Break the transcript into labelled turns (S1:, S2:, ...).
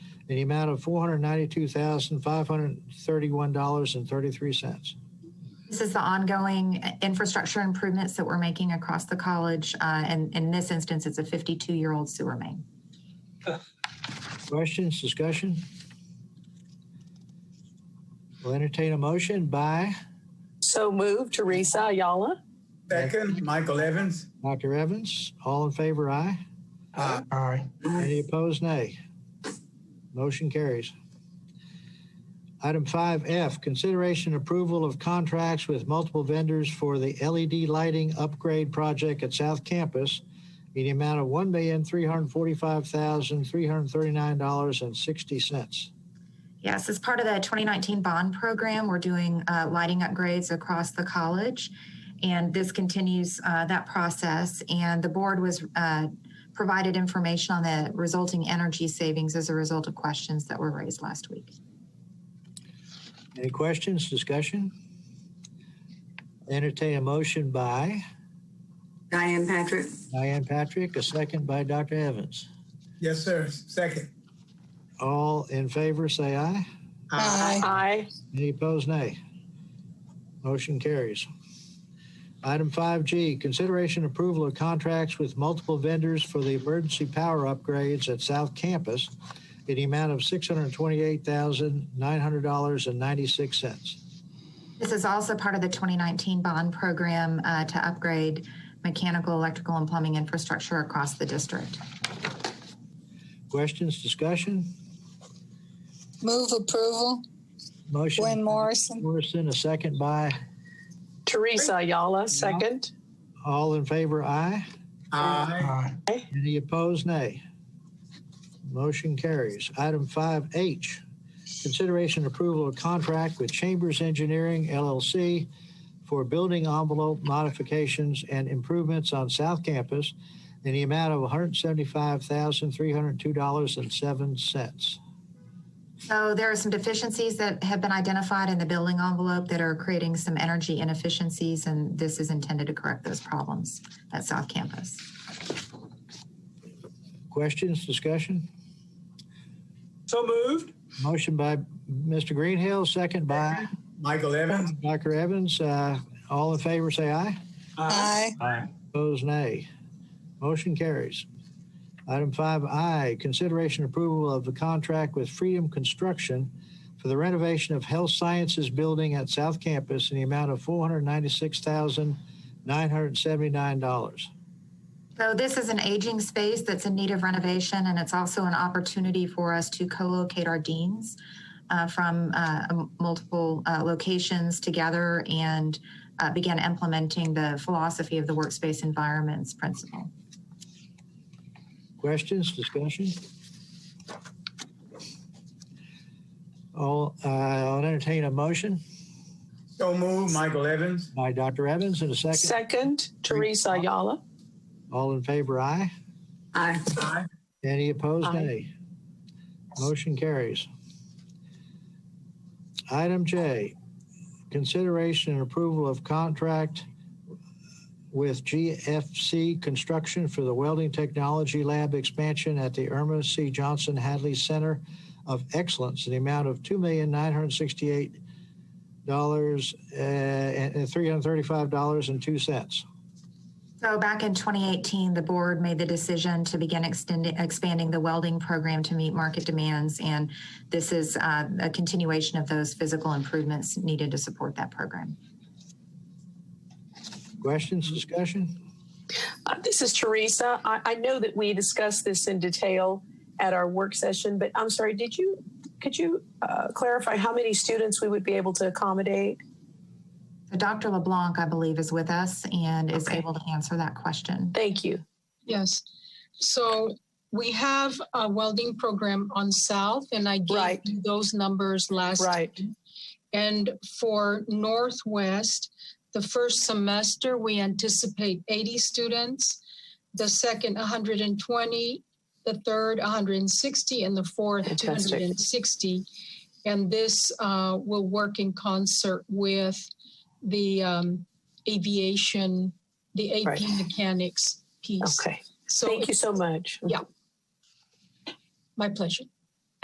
S1: in the amount of $492,531.33.
S2: This is the ongoing infrastructure improvements that we're making across the college. Uh, and in this instance, it's a 52 year old sewer main.
S1: Questions, discussion? We'll entertain a motion by
S3: So moved, Teresa Ayala.
S4: Second, Michael Evans.
S1: Dr. Evans. All in favor, aye.
S4: Aye.
S5: Aye.
S1: Any opposed, nay. Motion carries. Item 5F, consideration and approval of contracts with multiple vendors for the LED lighting upgrade project at South Campus in the amount of $1,345,339.60.
S2: Yes, as part of the 2019 bond program, we're doing uh, lighting upgrades across the college. And this continues uh, that process. And the board was uh, provided information on the resulting energy savings as a result of questions that were raised last week.
S1: Any questions, discussion? Entertain a motion by
S6: Diane Patrick.
S1: Diane Patrick, a second by Dr. Evans.
S4: Yes, sir. Second.
S1: All in favor, say aye.
S5: Aye.
S3: Aye.
S1: Any opposed, nay. Motion carries. Item 5G, consideration approval of contracts with multiple vendors for the emergency power upgrades at South Campus in the amount of $628,900.96.
S2: This is also part of the 2019 bond program uh, to upgrade mechanical, electrical, and plumbing infrastructure across the district.
S1: Questions, discussion?
S5: Move approval.
S1: Motion.
S5: Gwen Morrison.
S1: Morrison, a second by,
S3: Teresa Ayala, second.
S1: all in favor, aye.
S4: Uh, Aye.
S1: Any opposed, nay. Motion carries. Item 5H, consideration and approval of contract with Chambers Engineering LLC for building envelope modifications and improvements on South Campus in the amount of $175,302.07.
S2: So there are some deficiencies that have been identified in the building envelope that are creating some energy inefficiencies, and this is intended to correct those problems at South Campus.
S1: Questions, discussion?
S4: So moved.
S1: Motion by Mr. Greenhill, second by
S4: Michael Evans.
S1: Dr. Evans. Uh, All in favor, say aye.
S4: Uh,
S5: Aye.
S4: Aye.
S1: Opposed, nay. Motion carries. Item 5I, consideration approval of the contract with Freedom Construction for the renovation of Health Sciences Building at South Campus in the amount of $496,979.
S2: So this is an aging space that's in need of renovation, and it's also an opportunity for us to co-locate our deans uh, from uh, m- multiple uh, locations together and uh, begin implementing the philosophy of the workspace environments principle.
S1: Questions, discussion? All, uh, I'll entertain a motion
S4: So moved, Michael Evans.
S1: by Dr. Evans and a second.
S3: Second, Teresa Ayala.
S1: All in favor, aye.
S6: Aye.
S4: Aye.
S1: Any opposed,
S3: Aye.
S1: nay? Motion carries. Item J, consideration and approval of contract with GFC Construction for the Welding Technology Lab expansion at the Irma C. Johnson Hadley Center of Excellence in the amount of $2,968 uh, and $335.02.
S2: So back in 2018, the board made the decision to begin extending, expanding the welding program to meet market demands, and this is uh, a continuation of those physical improvements needed to support that program.
S1: Questions, discussion?
S3: Uh, This is Teresa. I, I know that we discussed this in detail at our work session, but I'm sorry, did you, could you uh, clarify how many students we would be able to accommodate?
S2: So Dr. LeBlanc, I believe, is with us and is
S3: Okay.
S2: able to answer that question.
S3: Thank you.
S7: Yes. So we have a welding program on South, and I gave
S3: Right.
S7: you those numbers last.
S3: Right.
S7: time. And for Northwest, the first semester, we anticipate 80 students, the second 120, the third 160, and the fourth
S3: Fantastic.
S7: 260. And this uh, will work in concert with the um, aviation, the AP
S3: Right.
S7: mechanics piece.
S3: Okay.
S7: So
S3: Thank you so much.
S7: Yeah. my pleasure.